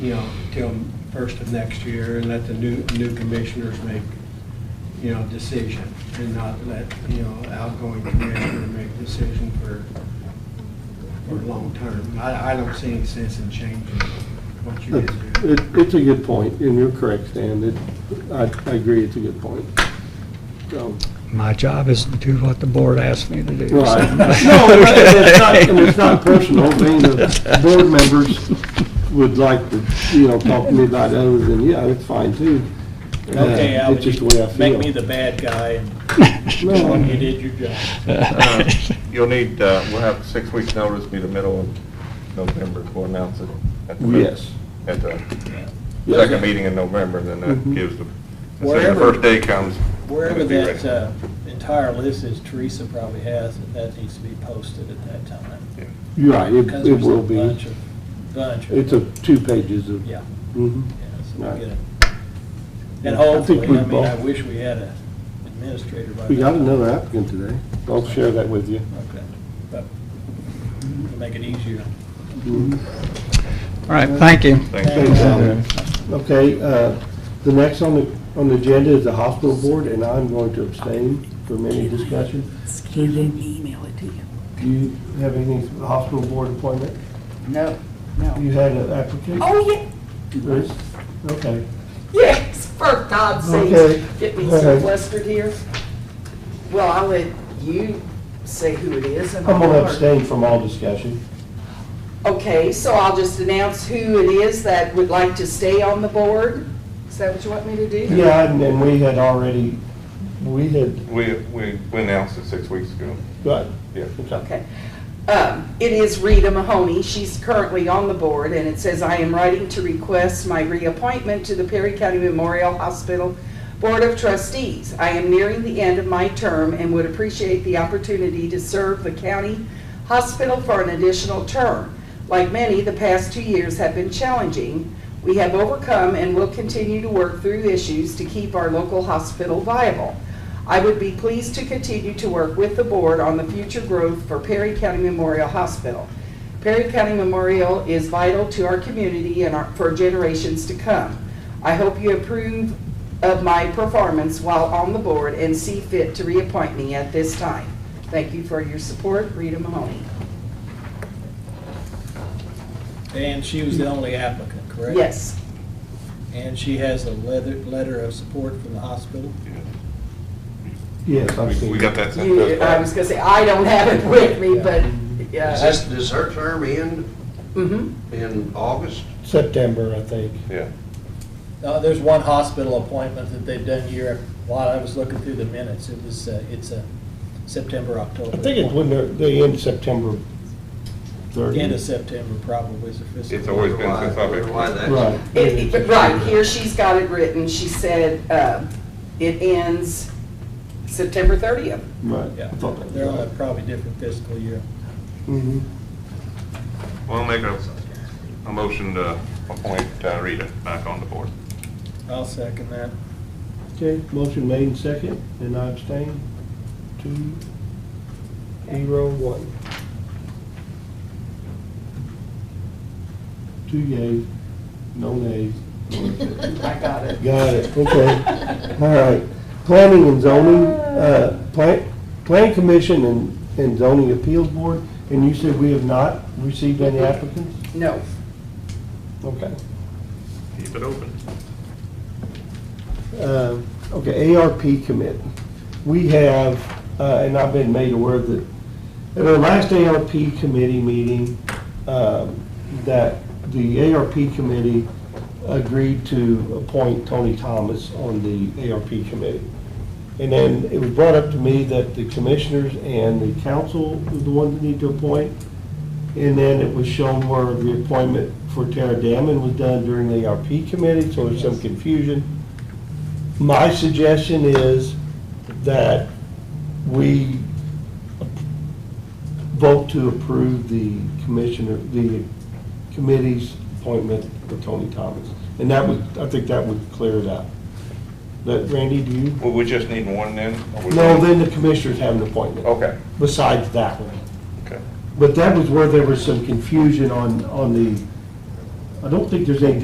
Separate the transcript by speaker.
Speaker 1: you know, till first of next year and let the new, new commissioners make, you know, decision and not let, you know, outgoing commissioner make decision for, for long term. I, I don't see any sense in changing what you guys do.
Speaker 2: It, it's a good point, and you're correct, Stan, it, I, I agree, it's a good point. So,
Speaker 3: My job is to do what the board asks me to do. so-
Speaker 2: right. No, and it's not, and it's not personal, being the board members would like to, you know, talk to me about other than, yeah, it's fine too. Uh,
Speaker 4: Okay, Al,
Speaker 2: It's just the way I
Speaker 4: you make
Speaker 2: feel.
Speaker 4: me the bad guy and
Speaker 2: No.
Speaker 4: when you did your job.
Speaker 5: Uh, You'll need, uh, we'll have six weeks' notice, be the middle of November to announce it. at the-
Speaker 2: Yes.
Speaker 5: At the
Speaker 2: Yes.
Speaker 5: second meeting in November, then that
Speaker 2: Mhm.
Speaker 5: gives the, so the
Speaker 4: Wherever-
Speaker 5: first day comes.
Speaker 4: Wherever
Speaker 5: it'll be
Speaker 4: that
Speaker 5: ready.
Speaker 4: uh, entire list is, Teresa probably has, it. that needs to be posted at that time.
Speaker 2: You're Right, it,
Speaker 4: Because
Speaker 2: it
Speaker 4: there's a
Speaker 2: will be,
Speaker 4: bunch of- Bunch of.
Speaker 2: it's a, two pages of.
Speaker 4: Yeah,
Speaker 2: Mhm.
Speaker 4: yeah, so we'll
Speaker 2: Right.
Speaker 4: get it. And
Speaker 2: I think
Speaker 4: hopefully,
Speaker 2: we
Speaker 4: I mean, I
Speaker 2: both-
Speaker 4: wish we had a administrator by.
Speaker 2: We got
Speaker 4: now.
Speaker 2: another applicant today, I'll share that with you.
Speaker 4: Okay, but to make it easier.
Speaker 2: Mhm.
Speaker 3: All right, thank you.
Speaker 5: Thanks.
Speaker 2: Thanks, Al. Okay, uh, the next on the, on the agenda is the hospital board, and I'm going to abstain from any discussion.
Speaker 6: He didn't email it to you.
Speaker 2: Do you have anything for the hospital board appointment?
Speaker 6: No,
Speaker 2: You had an applicant?
Speaker 6: Oh, yeah,
Speaker 2: Chris? Okay.
Speaker 6: yes, for God's
Speaker 2: Okay.
Speaker 6: sake, get me
Speaker 2: Okay.
Speaker 6: so flustered here. Well, I'll let you say who it is
Speaker 2: I'm
Speaker 6: and.
Speaker 2: going to
Speaker 6: I'll-
Speaker 2: abstain from all discussion.
Speaker 6: Okay, so I'll just announce who it is that would like to stay on the board? Is that what you want me to do?
Speaker 2: Yeah, and then we had already, we had,
Speaker 5: We, we we announced it six weeks ago.
Speaker 2: got,
Speaker 5: Yeah.
Speaker 6: Okay. Um, It is Rita Mahoney. She's currently on the board, and it says, "I am writing to request my reappointment to the Perry County Memorial Hospital Board of Trustees. I am nearing the end of my term and would appreciate the opportunity to serve the county hospital for an additional term. Like many, the past two years have been challenging. We have overcome and will continue to work through issues to keep our local hospital viable. I would be pleased to continue to work with the board on the future growth for Perry County Memorial Hospital. Perry County Memorial is vital to our community and our- for generations to come. I hope you approve of my performance while on the board and see fit to reappoint me at this time. Thank you for your support, Rita Mahoney.
Speaker 4: And she was the only applicant, correct?
Speaker 6: Yes,
Speaker 4: And she has a leather, letter of support from the hospital?
Speaker 2: yes, I've
Speaker 5: We
Speaker 2: seen.
Speaker 5: we got that sent.
Speaker 6: you, I was gonna say, I don't have it with me, but,
Speaker 7: Does
Speaker 6: uh,
Speaker 7: this, does her term end
Speaker 6: mhm.
Speaker 7: in August?
Speaker 2: September, I think.
Speaker 5: Yeah.
Speaker 4: Uh, there's one hospital appointment that they've done year, while I was looking through the minutes, it was, uh, it's a September, October.
Speaker 2: I think it's when they're, they end September 30.
Speaker 4: End of September probably is the fiscal.
Speaker 5: It's always been since I've been.
Speaker 7: Why that?
Speaker 2: Right.
Speaker 6: It- it- Right, here she's got it written, she said, uh, it ends September 30th.
Speaker 2: Right.
Speaker 4: Yeah,
Speaker 2: I thought that was
Speaker 4: they're on a
Speaker 2: right.
Speaker 4: probably different fiscal year.
Speaker 2: Mhm.
Speaker 5: We'll make a, a motion to appoint uh, Rita back on the board.
Speaker 4: I'll second that.
Speaker 2: Okay, motion made and second, and I abstain. Two, zero, one. Two yays, no nays.
Speaker 6: I got it.
Speaker 2: Got it, okay. All right. Planning and zoning, uh, plan, planning commission and, and zoning appeals board, and you said we have not received any applicants?
Speaker 6: No,
Speaker 2: Okay.
Speaker 5: Keep it open.
Speaker 2: Uh, Okay, ARP commit. We have, uh, and I've been made aware that at our last ARP committee meeting, um, that the ARP committee agreed to appoint Tony Thomas on the ARP committee. And then it was brought up to me that the commissioners and the council was the ones that need to appoint. And then it was shown where the appointment for Tara Damon was done during the ARP committee, so there's some confusion. My suggestion is that we vote to approve the commissioner, the committee's appointment for Tony Thomas. And that would, I think that would clear it up. But Randy, do you?
Speaker 5: Well, we just need one then? Oh. or we-
Speaker 2: No, then the commissioners have an appointment
Speaker 5: Okay,
Speaker 2: besides that one.
Speaker 5: okay.
Speaker 2: But that was where there was some confusion on, on the, I don't think there's any